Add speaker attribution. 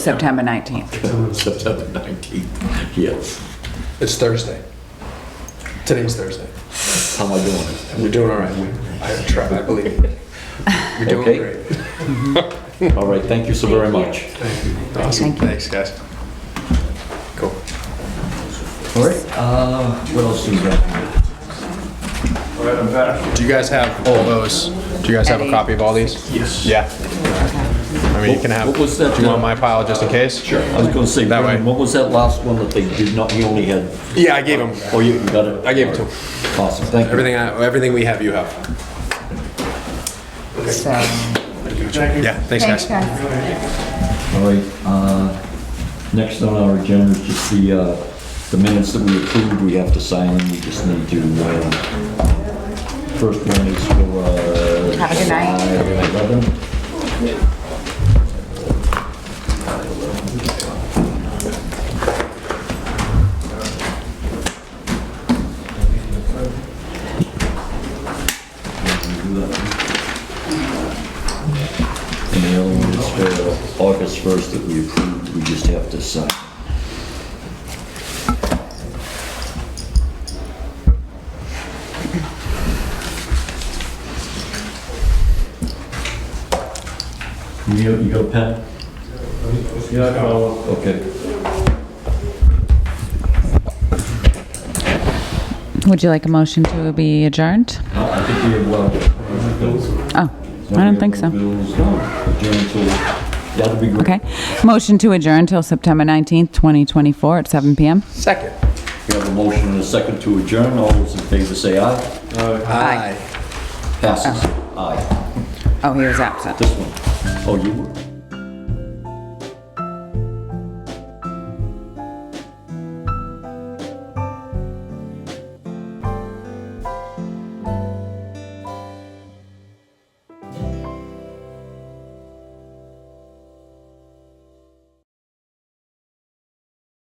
Speaker 1: September 19th.
Speaker 2: September 19th, yes.
Speaker 3: It's Thursday. Today's Thursday.
Speaker 2: How am I doing?
Speaker 3: We're doing all right. We- I try, I believe. you. We're
Speaker 2: Okay.
Speaker 3: doing great.
Speaker 2: All right, thank you so very much.
Speaker 3: Awesome.
Speaker 1: Thank you.
Speaker 3: Thanks, guys. Cool.
Speaker 2: All right, uh, what else do we got?
Speaker 3: Do you guys have all those? Do you guys have a
Speaker 1: Eddie.
Speaker 3: copy of all these? Yes. Yeah. I mean, you can have,
Speaker 2: What was that,
Speaker 3: do you want
Speaker 2: uh,
Speaker 3: my pile just in case? Sure.
Speaker 2: I was gonna say,
Speaker 3: That way.
Speaker 2: Brendan, what was that last one that they did not, you only had?
Speaker 3: Yeah, I gave him.
Speaker 2: Oh, you you got it?
Speaker 3: I gave it to him.
Speaker 2: Awesome, thank you.
Speaker 3: Everything, I- everything we have, you have.
Speaker 1: So,
Speaker 3: Yeah, thanks,
Speaker 1: thanks,
Speaker 3: guys.
Speaker 1: guys.
Speaker 2: All right, uh, next on our agenda is just the, uh, the minutes that we approved, we have to sign them, we just need to, uh, first one is for, uh.
Speaker 1: Have a good night.
Speaker 2: July 11. And the other one is for August 1st that we approved, we just have to sign. You got- you got a pen?
Speaker 4: Yeah, I got one.
Speaker 2: Okay.
Speaker 1: Would you like a motion to be adjourned?
Speaker 2: Uh, I think we have, well,
Speaker 1: Oh, I don't think so.
Speaker 2: Bills, no, adjourn till- That'd be great.
Speaker 1: Okay. Motion to adjourn till September 19th, 2024 at 7 PM.
Speaker 3: Second.
Speaker 2: We have a motion and a second to adjourn. All those in favor say aye.
Speaker 3: Aye.
Speaker 2: Passes. Aye.
Speaker 1: Oh, he was absent.
Speaker 2: Tá, This one. Oh, you were?